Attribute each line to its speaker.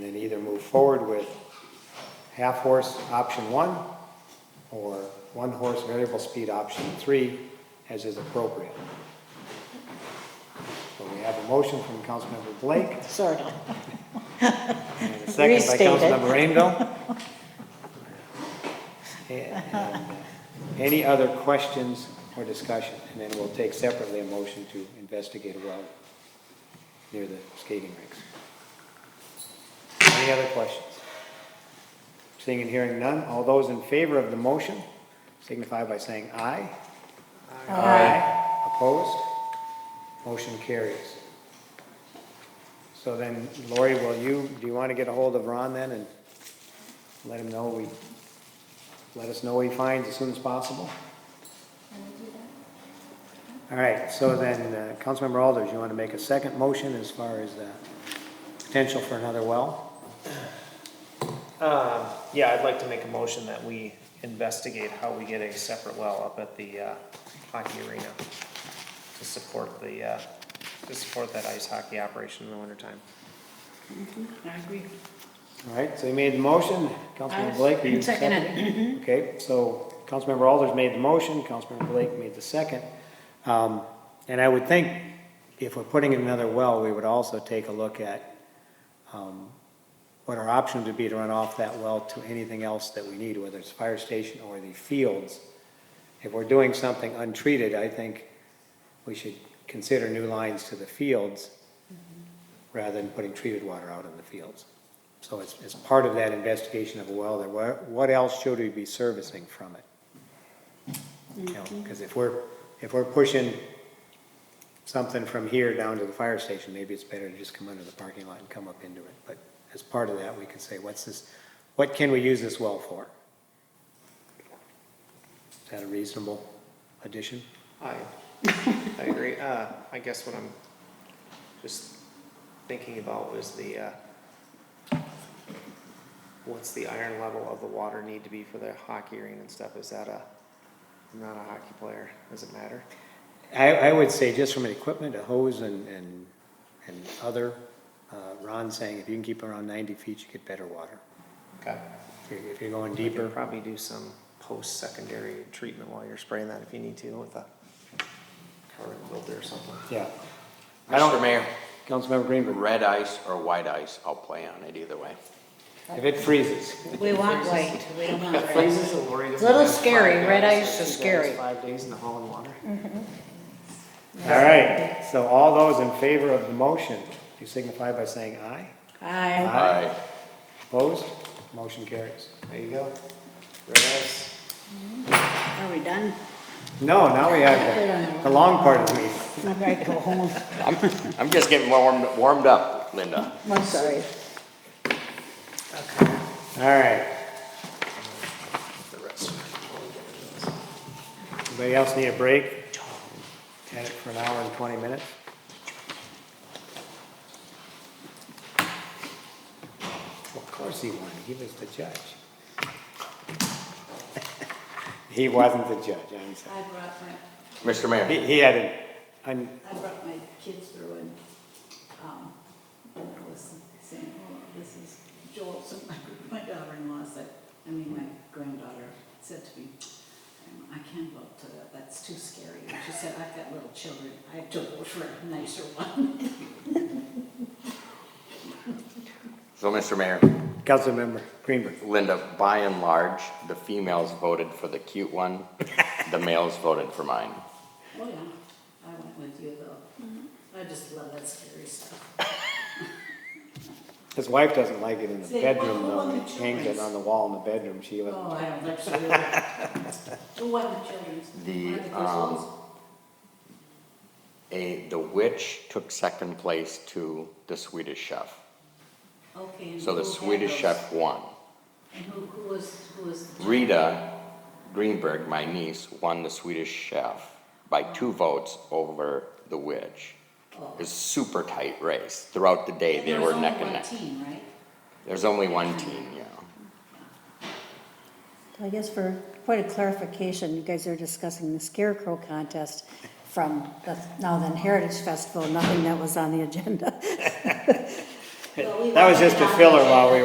Speaker 1: move forward with half-horse option one or one-horse variable speed option three as is appropriate. So we have a motion from Councilmember Blake
Speaker 2: Sort of.
Speaker 1: and a second by
Speaker 2: Restate it.
Speaker 1: Councilmember Rainville. And, uh, Any other questions or discussion? And then we'll take separately a motion to investigate a well near the skating rinks. Any other questions? Seeing and hearing none, all those in favor of the motion signify by saying aye. Aye. Opposed? Motion carries. So then Lori, will you, do you want to get a hold of Ron then and let him know we, let us know what he finds as soon as possible? All right, so then, uh, Councilmember Alders, you want to make a second motion as far as the potential for another well?
Speaker 3: Um, yeah, I'd like to make a motion that we investigate how we get a separate well up at the, uh, hockey arena to support the, uh, to support that ice hockey operation in the wintertime.
Speaker 4: I agree.
Speaker 1: All right, so you made the motion, Councilmember Blake, are you
Speaker 4: Second
Speaker 1: seconding? Okay, so Councilmember Alders made the motion, Councilmember Blake made the second. Um, And I would think if we're putting in another well, we would also take a look at um, what our options would be to run off that well to anything else that we need, whether it's fire station or the fields. If we're doing something untreated, I think we should consider new lines to the fields rather than putting treated water out in the fields. So it's, it's part of that investigation of a well, that what, what else should we be servicing from it? You know, because if we're, if we're pushing something from here down to the fire station, maybe it's better to just come under the parking lot and come up into it. But as part of that, we could say, what's this, what can we use this well for? Is that a reasonable addition?
Speaker 3: I, I agree. Uh, I guess what I'm just thinking about was the, uh, what's the iron level of the water need to be for the hockey arena and stuff? Is that a, I'm not a hockey player. Does it matter?
Speaker 1: I, I would say just from an equipment, a hose and, and, and other, uh, Ron's saying if you can keep around ninety feet, you get better water.
Speaker 3: Okay.
Speaker 1: If you're, if you're going
Speaker 3: You could
Speaker 1: deeper,
Speaker 3: probably do some post-secondary treatment while you're spraying that if you need to with a carbon filter or something.
Speaker 1: yeah. I
Speaker 5: Mr.
Speaker 1: don't,
Speaker 5: Mayor,
Speaker 1: Councilmember Greenberg,
Speaker 5: red ice or white ice, I'll play on it either way.
Speaker 1: if it freezes.
Speaker 2: We want white, we don't want red.
Speaker 3: Phrases of Lori doesn't
Speaker 2: Little
Speaker 3: have
Speaker 2: scary.
Speaker 3: five
Speaker 2: Red
Speaker 3: guys,
Speaker 2: ice is
Speaker 3: two guys,
Speaker 2: scary.
Speaker 3: Five days in the hall and water.
Speaker 1: Mm-hmm. All right, so all those in favor of the motion, you signify by saying aye.
Speaker 2: Aye.
Speaker 1: Aye. Opposed? Motion carries.
Speaker 3: There you go. Red ice.
Speaker 4: Are we done?
Speaker 1: No, now we have the, the long part of the meeting.
Speaker 2: I gotta go home.
Speaker 5: I'm, I'm just getting warmed, warmed up, Linda.
Speaker 2: I'm sorry.
Speaker 1: All right. Anybody else need a break? Had it for an hour and 20 minutes? Of course he won, he was the judge. He wasn't the judge, I'm sorry.
Speaker 4: I brought my,
Speaker 5: Mr. Mayor,
Speaker 1: He, he had an, un-
Speaker 4: I brought my kids through and, um, and I was saying, oh, this is Joel, so my, my daughter-in-law said, I mean, my granddaughter said to me, "Um, I can't vote to that, that's too scary. And she said, I've got little children, I have to vote for a nicer one.
Speaker 5: so Mr. Mayor,
Speaker 1: Councilmember Greenberg.
Speaker 5: Linda, by and large, the females voted for the cute one, the males voted for mine.
Speaker 4: Oh, yeah, I went with you
Speaker 6: Mm-hmm.
Speaker 4: though. I just love that scary stuff.
Speaker 1: His wife doesn't like it in the
Speaker 4: Say,
Speaker 1: bedroom
Speaker 4: "Oh,
Speaker 1: though, and
Speaker 4: the
Speaker 1: hangs it
Speaker 4: children's."
Speaker 1: on the wall in the bedroom, she doesn't.
Speaker 4: Oh, I don't like children. The one, the children's.
Speaker 5: The,
Speaker 4: I like those
Speaker 5: um,
Speaker 4: ones.
Speaker 5: A, the witch took second place to the Swedish chef.
Speaker 4: Okay. and
Speaker 5: So the
Speaker 4: who had
Speaker 5: Swedish
Speaker 4: those?
Speaker 5: chef won.
Speaker 4: And who, who was, who was? the-
Speaker 5: Rita Greenberg, my niece, won the Swedish chef by two votes over the witch.
Speaker 4: Oh.
Speaker 5: It was a super tight race. Throughout the day, they
Speaker 4: There
Speaker 5: were
Speaker 4: was only
Speaker 5: neck and
Speaker 4: one
Speaker 5: neck.
Speaker 4: team, right?
Speaker 5: There's only one team, yeah.
Speaker 6: I guess for quite a clarification, you guys are discussing the scarecrow contest from the now then Heritage Festival, nothing that was on the agenda.
Speaker 4: Well, we
Speaker 1: That was
Speaker 4: wanted
Speaker 1: just a
Speaker 4: it on the
Speaker 1: filler
Speaker 4: agenda.
Speaker 1: while we